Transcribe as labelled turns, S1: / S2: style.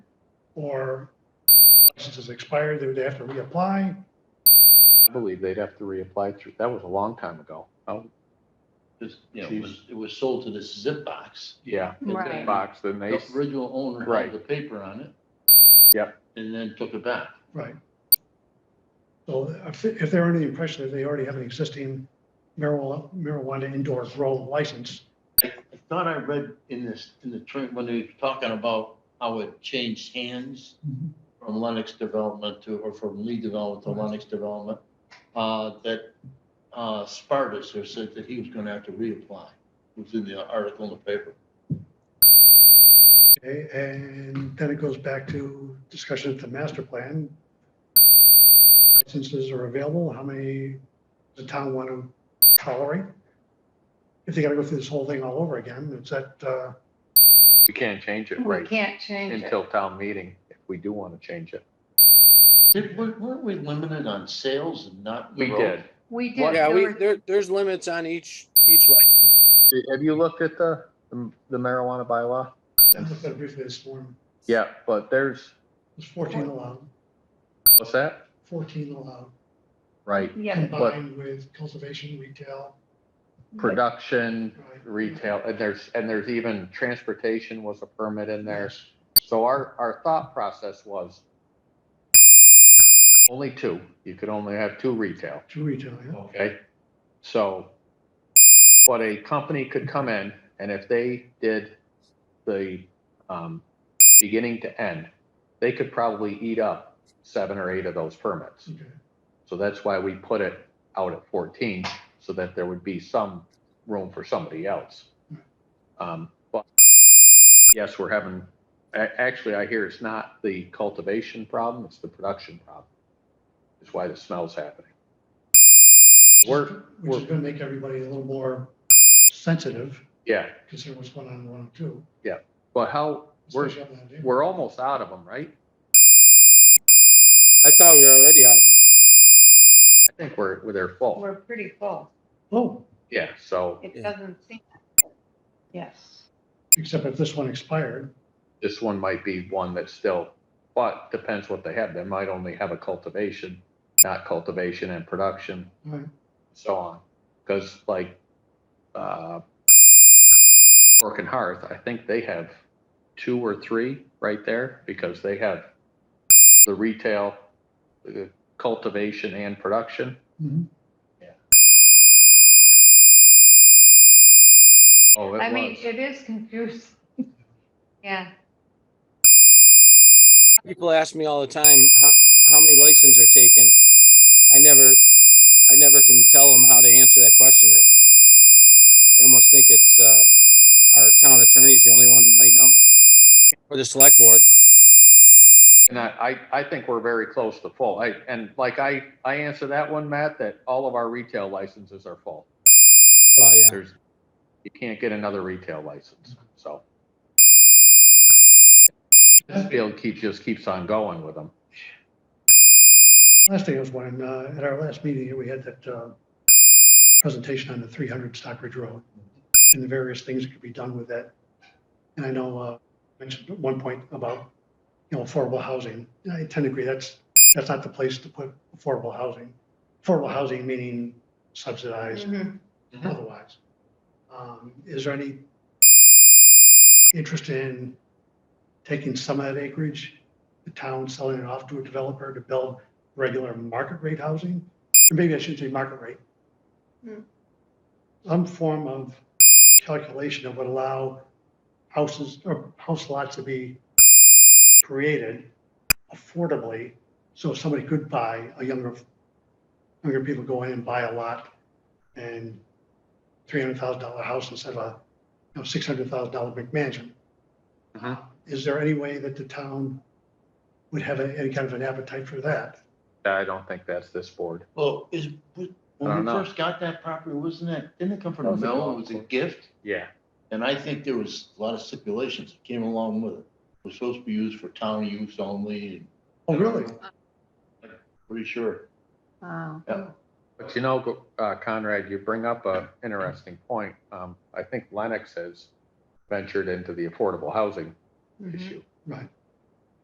S1: or license has expired, they would have to reapply.
S2: I believe they'd have to reapply through, that was a long time ago. Oh,
S3: Because, you know, it was, it was sold to this zip box.
S2: yeah,
S3: And then
S4: Right.
S2: box, then they,
S3: The original owner
S2: Right.
S3: had the paper on it.
S2: Yep.
S3: And then took it back.
S1: Right. So if, if they're under the impression that they already have an existing marijuana, marijuana indoor grow license,
S3: I thought I read in this, in the trend, when they were talking about how it changed hands
S1: Mhm.
S3: from Lennox Development to, or from Lee Development to
S1: Right.
S3: Lennox Development, uh, that, uh, Spartus or said that he was gonna have to reapply, was in the article in the paper.
S1: okay, eh, and then it goes back to discussion at the master plan. Licenses are available, how many does the town want to tolerate? If they gotta go through this whole thing all over again, it's that, uh,
S2: we can't change it,
S4: We
S2: right,
S4: can't change it.
S2: until town meeting, if we do want to change it.
S3: Did, weren't weren't we limited on sales and not?
S2: We
S3: growth?
S2: did.
S4: We did.
S2: What-
S5: Yeah,
S4: there
S5: we,
S4: were-
S5: there, there's limits on each, each license.
S2: Have you looked at the, the marijuana bylaw?
S1: I looked at it briefly this morning,
S2: Yeah, but there's,
S1: it's fourteen allowed,
S2: what's that?
S1: fourteen allowed,
S2: Right,
S4: Yeah,
S1: combined with cultivation, retail.
S2: production,
S1: right?
S2: retail, and there's, and there's even transportation was a permit in there. So our, our thought process was only two, you could only have two retail.
S1: To retail, yeah.
S2: Okay, so, but a company could come in and if they did the, um, beginning to end, they could probably eat up seven or eight of those permits.
S1: Okay,
S2: So that's why we put it out at fourteen, so that there would be some room for somebody else. Um, but yes, we're having, a- actually, I hear it's not the cultivation problem, it's the production problem. Is why the smell's happening. We're,
S1: Which is
S2: we're-
S1: gonna make everybody a little more sensitive,
S2: yeah,
S1: considering what's going on in one oh two.
S2: but how, we're,
S1: especially on that day.
S2: we're almost out of them, right?
S5: I thought we were already on them.
S2: I think we're, we're- they're full.
S4: we're pretty full.
S1: Oh,
S2: Yeah, so
S4: It
S5: Yeah.
S4: doesn't seem. Yes.
S1: except if this one expired,
S2: this one might be one that's still, but depends what they have. They might only have a cultivation, not cultivation and production.
S1: Right.
S2: So on, because like, uh, Fork and Hearth, I think they have two or three right there because they have the retail, the cultivation and production.
S1: Mhm.
S2: Yeah. Oh, it
S4: I mean,
S2: was.
S4: it is confusing. Yeah,
S5: People ask me all the time, how, how many licenses are taken? I never, I never can tell them how to answer that question. I, I almost think it's, uh, our town attorney's the only one who might know. Or the select board.
S2: And I, I, I think we're very close to full. I, and like I, I answer that one, Matt, that all of our retail licenses are full.
S5: Well, yeah.
S2: There's, you can't get another retail license, so. This field keeps, just keeps on going with them.
S1: last thing was when, uh, at our last meeting, here, we had that, uh, presentation on the three hundred Stockbridge Road and the various things that could be done with that. And I know, uh, mentioned at one point about, you know, affordable housing. I tend to agree, that's, that's not the place to put affordable housing. Affordable housing meaning subsidized
S4: Mhm.
S2: Mhm.
S1: otherwise. Um, Is there any interest in taking some of that acreage, the town selling it off to a developer to build regular market rate housing? Or maybe I shouldn't say market rate.
S4: Hmm.
S1: Some form of calculation that would allow houses or house lots to be created affordably, so somebody could buy a younger, younger people go in and buy a lot and three hundred thousand dollar house instead of a, you know, six hundred thousand dollar McMansion. Uh-huh.
S2: Mhm.
S1: Is there any way that the town would have a- any kind of an appetite for that?
S2: I don't think that's this board.
S3: Well, is, was-
S2: I
S3: when
S2: don't
S3: we
S2: know.
S3: first got that property, wasn't that, didn't it come
S2: That
S3: from
S2: was a
S3: Mel?
S2: golf
S3: It was a
S2: course.
S3: gift?
S2: Yeah.
S3: And I think there was a lot of stipulations that came along with it. It was supposed to be used for town use only, and
S1: Oh, really?
S3: pretty sure.
S4: Wow.
S3: Yeah.
S2: But you know, uh, Conrad, you bring up a interesting point. Um, I think Lennox has ventured into the affordable housing
S4: Mhm.
S2: issue.
S1: Right.